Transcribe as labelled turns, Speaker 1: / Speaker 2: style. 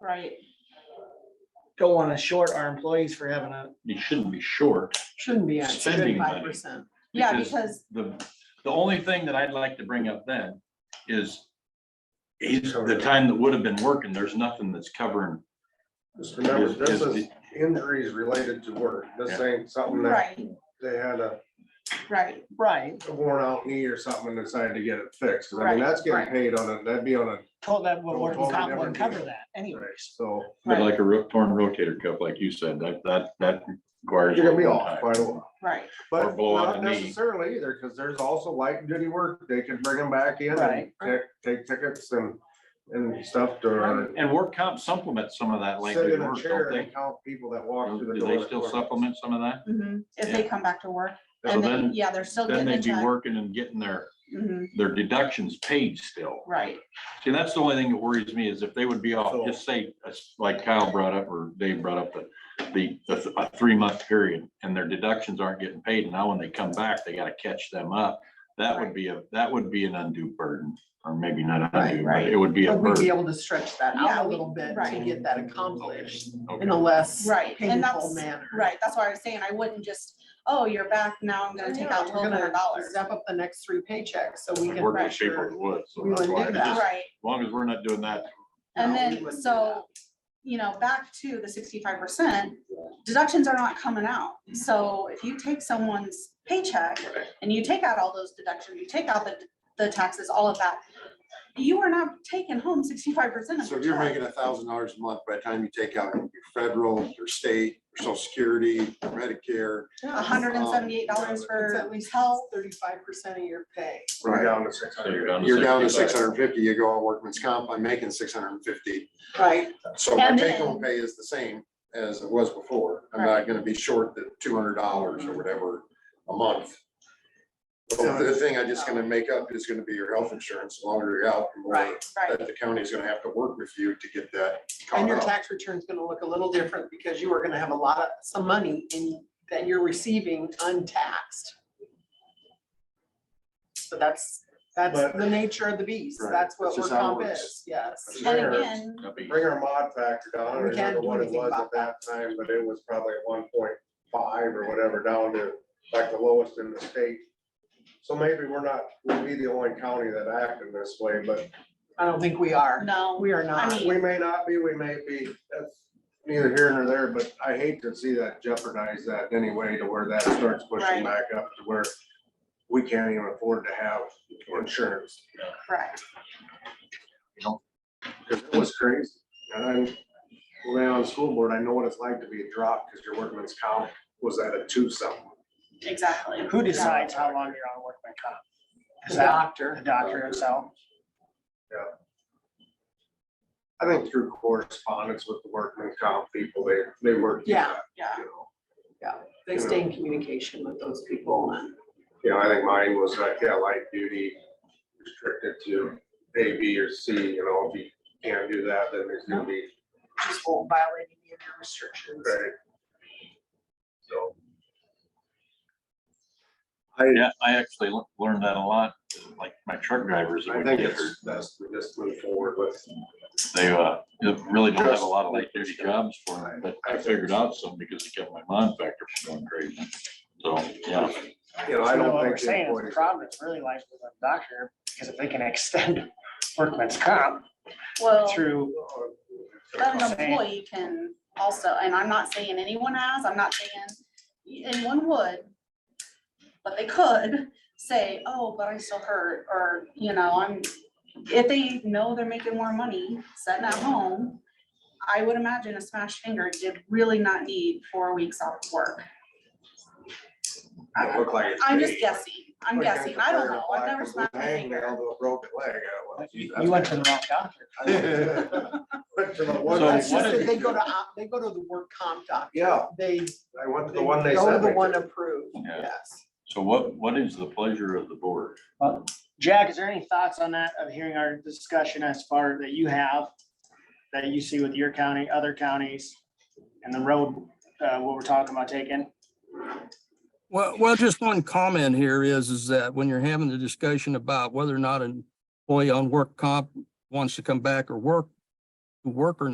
Speaker 1: Right.
Speaker 2: don't wanna short our employees for having a,
Speaker 3: You shouldn't be short.
Speaker 4: Shouldn't be at
Speaker 3: Spending money.
Speaker 4: five percent.
Speaker 1: Yeah, because,
Speaker 3: The, the only thing that I'd like to bring up then is he's, the time that would have been working, there's nothing that's covering.
Speaker 5: Just remember,
Speaker 3: his-
Speaker 5: this
Speaker 3: his-
Speaker 5: is injuries related to work. This
Speaker 3: Yeah.
Speaker 5: ain't something that
Speaker 1: right,
Speaker 5: they had a
Speaker 1: right,
Speaker 2: right,
Speaker 5: a worn out knee or something and decided to get it fixed. 'Cause I mean,
Speaker 1: Right,
Speaker 5: that's getting
Speaker 1: right.
Speaker 5: paid on a, that'd be on a,
Speaker 2: told that would work,
Speaker 5: Totally
Speaker 2: comp
Speaker 5: never
Speaker 2: would
Speaker 5: do
Speaker 2: cover
Speaker 5: that.
Speaker 2: that anyways.
Speaker 5: so
Speaker 3: But like a ro- torn rotator cuff, like you said, that, that, that requires.
Speaker 5: you're gonna be
Speaker 3: overtime.
Speaker 5: off quite a while.
Speaker 1: right,
Speaker 3: Or
Speaker 5: But
Speaker 3: blow out
Speaker 5: not
Speaker 3: a knee.
Speaker 5: necessarily either, because there's also light duty work. They could bring them back in and
Speaker 2: Right.
Speaker 5: take, take tickets and, and stuff to.
Speaker 3: And and work comp supplements some of that
Speaker 5: Sit
Speaker 3: language
Speaker 5: in a
Speaker 3: work,
Speaker 5: chair
Speaker 3: don't
Speaker 5: and
Speaker 3: they?
Speaker 5: count people that walk through the
Speaker 3: Do
Speaker 5: door.
Speaker 3: they still supplement some of that?
Speaker 4: Mm-hmm.
Speaker 1: mhm, if they
Speaker 3: Yeah.
Speaker 1: come back to work,
Speaker 3: So
Speaker 1: and then,
Speaker 3: then,
Speaker 1: yeah, they're still
Speaker 3: then
Speaker 1: getting the
Speaker 3: they'd be
Speaker 1: check,
Speaker 3: working and getting their,
Speaker 1: mhm,
Speaker 3: their deductions paid still.
Speaker 1: right,
Speaker 3: See, that's the only thing that worries me is if they would be
Speaker 5: So-
Speaker 3: off, just say, uh, like Kyle brought up or Dave brought up, that the, the, th- a three month period and their deductions aren't getting paid. and Now when they come back, they gotta catch them up. That would be a, that would be an undue burden, or maybe not
Speaker 4: Right,
Speaker 3: undue, but
Speaker 1: right.
Speaker 3: it would be a
Speaker 4: But we'd be
Speaker 3: burden.
Speaker 4: able to stretch that
Speaker 1: Yeah,
Speaker 4: out a
Speaker 1: we-
Speaker 4: little bit to
Speaker 1: right.
Speaker 4: get that accomplished in
Speaker 3: Okay.
Speaker 4: a less
Speaker 1: Right, and
Speaker 4: painful
Speaker 1: that's-
Speaker 4: manner.
Speaker 1: right, that's why I was saying, I wouldn't just, oh, you're back, now I'm gonna take out
Speaker 4: We're
Speaker 1: twelve
Speaker 4: gonna
Speaker 1: hundred dollars.
Speaker 4: Step up the next three paychecks so we can.
Speaker 3: Work with
Speaker 4: make
Speaker 3: people
Speaker 4: sure-
Speaker 3: that would, so
Speaker 4: we
Speaker 3: that's
Speaker 4: wouldn't
Speaker 3: why,
Speaker 4: do
Speaker 3: I
Speaker 4: that.
Speaker 3: just-
Speaker 1: Right,
Speaker 3: as long as we're not doing that,
Speaker 1: and
Speaker 4: No, we
Speaker 1: then,
Speaker 4: wouldn't do
Speaker 1: so, you know, back to the sixty-five percent, deductions are not coming out.
Speaker 4: Mm-hmm.
Speaker 1: So if you take someone's paycheck and you take out all those deductions, you take out the, the taxes, all of that, you are not taking home sixty-five percent of
Speaker 6: So
Speaker 1: the
Speaker 6: if you're
Speaker 1: check.
Speaker 6: making a thousand dollars a month, by the time you take out your federal, your state, your social security, your Medicare.
Speaker 4: Yeah,
Speaker 1: A hundred and seventy-eight dollars
Speaker 4: Um, It's
Speaker 1: for
Speaker 4: at least
Speaker 1: health,
Speaker 4: thirty-five percent of your pay.
Speaker 5: We're down to six
Speaker 3: so you're
Speaker 5: hundred.
Speaker 3: down to.
Speaker 6: You're down to six
Speaker 3: 65.
Speaker 6: hundred and fifty, you go on workman's comp, I'm making six hundred and fifty.
Speaker 4: Right.
Speaker 6: So my
Speaker 1: And
Speaker 6: take
Speaker 1: then-
Speaker 6: home pay is the same as it was before. I'm not gonna be short the two hundred dollars or whatever a month. So The thing I just gonna make up is gonna be your health insurance, the longer you're out, the more
Speaker 4: Right.
Speaker 1: right,
Speaker 6: that the county's gonna have to work with you to get that
Speaker 4: And
Speaker 6: caught
Speaker 4: your
Speaker 6: up.
Speaker 4: tax return's gonna look a little different because you are gonna have a lot of, some money in, that you're receiving untaxed. So that's, that's
Speaker 5: But-
Speaker 4: the nature of the beast.
Speaker 6: Right.
Speaker 4: That's what
Speaker 6: That's
Speaker 4: we're
Speaker 6: just how it
Speaker 4: comp
Speaker 6: works.
Speaker 4: is, yes.
Speaker 5: That's
Speaker 1: and
Speaker 5: Sure.
Speaker 1: again,
Speaker 3: That'd be-
Speaker 5: Bring our mod factor down, I don't
Speaker 4: We can't
Speaker 5: remember
Speaker 4: do
Speaker 5: what it
Speaker 4: anything
Speaker 5: was at
Speaker 4: about
Speaker 5: that time, but it was probably one point five or whatever, down to like the lowest in the state. So maybe we're not, we'll be the only county that acted this way, but
Speaker 4: I don't think we are.
Speaker 1: no,
Speaker 4: We are
Speaker 1: I
Speaker 4: not.
Speaker 1: mean-
Speaker 5: we may not be, we may be, that's neither here nor there, but I hate to see that jeopardize that anyway to where that starts
Speaker 1: Right.
Speaker 5: pushing back up to where we can't even afford to have insurance.
Speaker 1: correct,
Speaker 5: Cause it was crazy. And I, when I was on the school board, I know what it's like to be a drop, cause your workman's comp was at a two something.
Speaker 1: exactly.
Speaker 2: Who decides how long you're on work by comp?
Speaker 4: The
Speaker 2: Is that the
Speaker 4: doctor.
Speaker 2: doctor himself?
Speaker 5: I think through correspondence with the workman's comp people, they, they work. through
Speaker 4: Yeah.
Speaker 5: that,
Speaker 1: Yeah.
Speaker 5: you know.
Speaker 4: They stay in communication with those people and
Speaker 5: You know, I think mine was like, yeah, light duty restricted to A, B, or C, you know, if you can't do that, then there's gonna be,
Speaker 4: just won't violate any of your restrictions.
Speaker 5: right? So.
Speaker 3: Yeah, I actually le- learned that a lot, like my truck drivers that
Speaker 5: I
Speaker 3: would
Speaker 5: think
Speaker 3: get hurt.
Speaker 5: it's best to just move forward with.
Speaker 3: They uh, they really don't have a lot of light duty jobs for them, but I figured out some because it kept my mind factor from going crazy. So, yeah,
Speaker 5: You know, I
Speaker 2: So then
Speaker 5: don't think.
Speaker 2: what we're saying
Speaker 5: the
Speaker 2: is the
Speaker 5: employees-
Speaker 2: problem is really lies with the doctor, because if they can extend workman's comp
Speaker 1: Well.
Speaker 2: through,
Speaker 1: But an
Speaker 2: Saying-
Speaker 1: employee can also, and I'm not saying anyone has, I'm not saying anyone would. But they could say, oh, but I still hurt, or, you know, I'm, if they know they're making more money sitting at home. I would imagine a smashed finger did really not need four weeks off of work.
Speaker 5: It looked like it's
Speaker 1: I'm just
Speaker 5: paid.
Speaker 1: guessing, I'm
Speaker 5: Like,
Speaker 1: guessing, I don't know, I've
Speaker 5: black
Speaker 1: never
Speaker 5: and blue
Speaker 1: smashed a
Speaker 5: hangnail
Speaker 1: finger.
Speaker 5: to a Broken leg. I
Speaker 2: but
Speaker 5: went,
Speaker 2: you
Speaker 5: "Geez,
Speaker 2: you
Speaker 5: that's
Speaker 2: went to the wrong doctor.
Speaker 5: Went
Speaker 3: So
Speaker 5: to the one they
Speaker 4: That's
Speaker 3: what
Speaker 4: just
Speaker 5: said
Speaker 3: is-
Speaker 4: that they go
Speaker 5: do.
Speaker 4: to, op- they go to the work comp doctor.
Speaker 5: Yeah,
Speaker 4: They
Speaker 5: I went to
Speaker 4: They
Speaker 5: the one they
Speaker 4: go to
Speaker 5: said.
Speaker 4: the
Speaker 5: they
Speaker 4: one
Speaker 5: did.
Speaker 4: approved,
Speaker 3: Yeah.
Speaker 4: yes.
Speaker 3: so what, what is the pleasure of the board?
Speaker 2: Jack, is there any thoughts on that, of hearing our discussion as far that you have, that you see with your county, other counties, and the road, uh, what we're talking about taking?
Speaker 7: Well, well, just one comment here is, is that when you're having the discussion about whether or not an employee on work comp wants to come back or work, work or